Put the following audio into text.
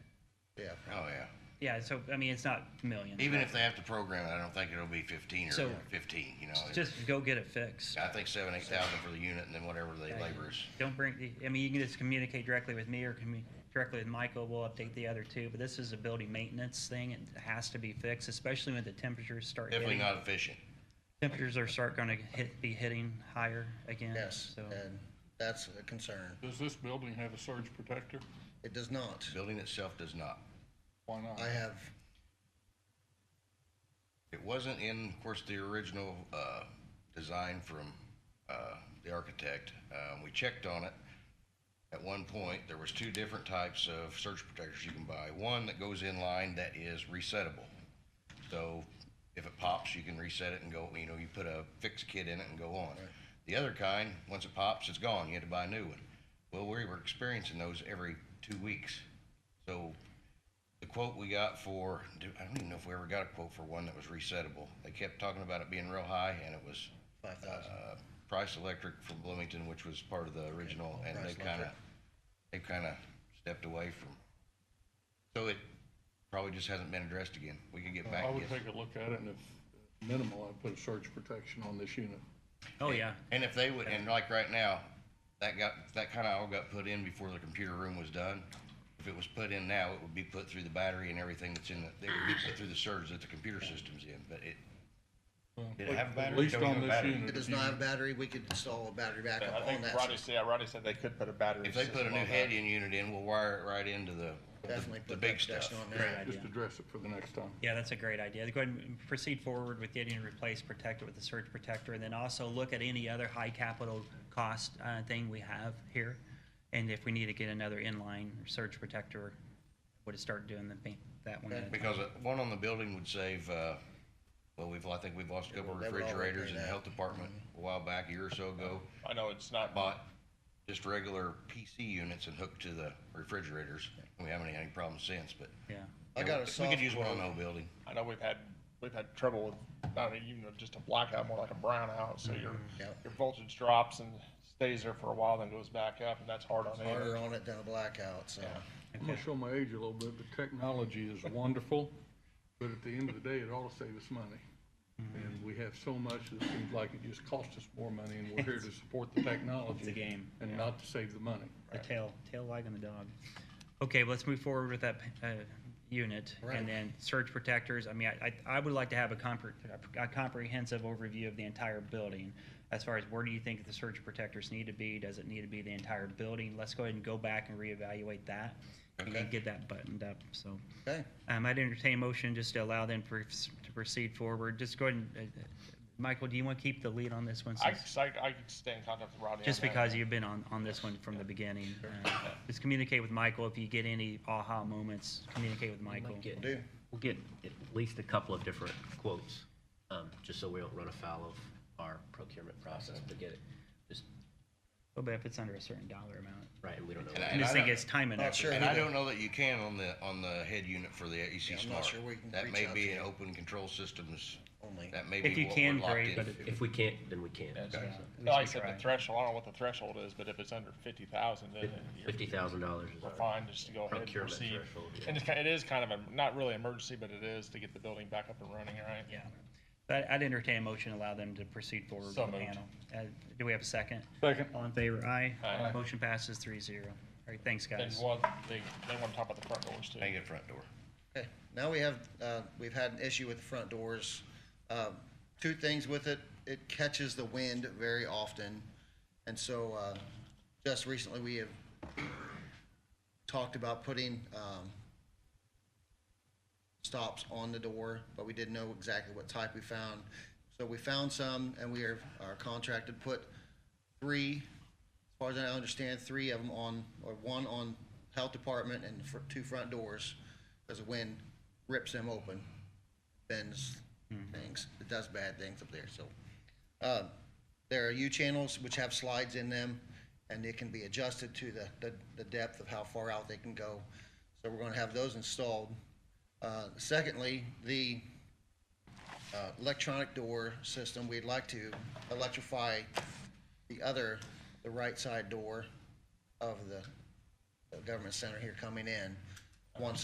Yeah. Oh, yeah. Yeah, so, I mean, it's not millions. Even but if they have to program it, I don't think it'll be fifteen or So- fifteen, you know. Just go get it fixed. I think seven, eight thousand for the unit and then whatever the laborers. Don't bring, the- I mean, you can just communicate directly with me or commu- directly with Michael, we'll update the other two, but this is a building maintenance thing, it has to be fixed, especially when the temperatures start Definitely hitting. not efficient. Temperatures are start gonna hit, be hitting higher again, Yes, so. and that's a concern. Does this building have a surge protector? It does not. Building itself does not. Why not? I have, It wasn't in, of course, the original, uh, design from, uh, the architect. Um, we checked on it. At one point, there was two different types of surge protectors you can buy. One that goes in line that is resettable. So if it pops, you can reset it and go, you know, you put a fix kit in it and go on. The other kind, once it pops, it's gone. You had to buy a new one. Well, we were experiencing those every two weeks. So the quote we got for, do- I don't even know if we ever got a quote for one that was resettable. They kept talking about it being real high and it was. 5,000. uh, Price Electric from Bloomington, which was part of the original, and they Price kind of, Electric. they kind of stepped away from. So it probably just hasn't been addressed again. We could get back. I would yes. take a look at it and if minimal, I'd put a surge protection on this unit. Oh, yeah, And if they would, and like right now, that got, that kind of all got put in before the computer room was done. If it was put in now, it would be put through the battery and everything that's in the, it would be put through the surge that the computer system's in, but it, Well, Did it have a battery? At least Don't have on a this battery. unit. it does if you- not have battery. We could install a battery I backup on think that. Roddy said, Roddy said they could put a battery. if they put a system new on that. head in unit in, we'll wire it right into the, Definitely the put that big stuff. protection on great there. idea. Just address it for the next time. Yeah, that's a great idea. Go ahead and proceed forward with getting a replaced protector with the surge protector, and then also look at any other high capital cost uh, thing we have here. And if we need to get another inline surge protector, would it start doing the, thing- that one? at a time. Because uh, one on the building would save, uh, well, we've, I think we've lost a couple They would all refrigerators in do the that. health department a while back, a year or so ago. I know it's not, Bought just regular PC units and hooked to the refrigerators. We haven't had any problems since, but. Yeah, I got a We soft could use one on the quote. whole building. I know we've had, we've had trouble with, not even just a blackout, more like a brownout. So your, Yep. your voltage drops and stays there for a while, then goes back up and that's hard on Harder it. on it than a blackout, so. I'm gonna show my age a little bit, but technology is wonderful, but at the end of the day, it ought to save us money. Mm-hmm. And we have so much that seems like it just costs us more money, and we're here to support the technology. It's a game, And not to save the money. the tail, tail wagging the dog. Okay, let's move forward with that uh, unit, Right. and then surge protectors. I mean, I, I I would like to have a compre- a comprehensive overview of the entire building. As far as where do you think the surge protectors need to be? Does it need to be the entire building? Let's go ahead and go back and reevaluate that, and then Okay. get that buttoned up, so. Okay, Um, I'd entertain a motion just to allow them for- to proceed forward. Just go ahead and, uh, uh, Michael, do you want to keep the lead on this one? I, since- could- I, I could stay in contact with Rodney. on just that. because you've been on, on this one from the beginning. Uh, Just communicate with Michael. If you get any aha moments, communicate with Michael. Might get- do. We'll get at least a couple of different quotes, um, just so we don't run afoul of our procurement process to get it, just, Oh, But if it's under a certain dollar amount. right, and we don't know. And I- I just think it's time and Not effort. sure. And I who the- don't know that you can on the, on the head unit for the Yeah, EC I'm not Smart. sure we can That reach may out be to an them. open control systems. Only. That may If be you what can, we're locked great, in. but to. If we can't, then we can't. Yeah, Like I we said, try. the threshold, I don't know what the threshold is, but if it's under fifty thousand, then you're Fifty thousand dollars is we're our. fine just to go ahead and Procurement proceed. threshold, yeah. And it's, ki- it is kind of a, not really emergency, but it is to get the building back up and running, right? Yeah. But I'd entertain a motion, to allow them to proceed forward with So the moved. panel. Uh, Do we have a second? Second. All in favor? Aye. Aye. Motion passes three zero. All right, thanks, And guys. what, they, they wanna talk about the front doors too. Hang it front door. Okay, now we have, uh, we've had an issue with the front doors. Um, Two things with it, it catches the wind very often. And so uh, just recently, we have talked about putting um, stops on the door, but we didn't know exactly what type we found. So we found some, and we are are contracted, put three, as far as I understand, three of them on, or one on health department and the fr- two front doors, because the wind rips them open, bends things, it does bad things up there, so. Uh, There are U-channels which have slides in them, and they can be adjusted to the, the- the depth of how far out they can go. So we're gonna have those installed. Uh, Secondly, the uh, electronic door system, we'd like to electrify the other, the right side door of the the government center here coming in. Once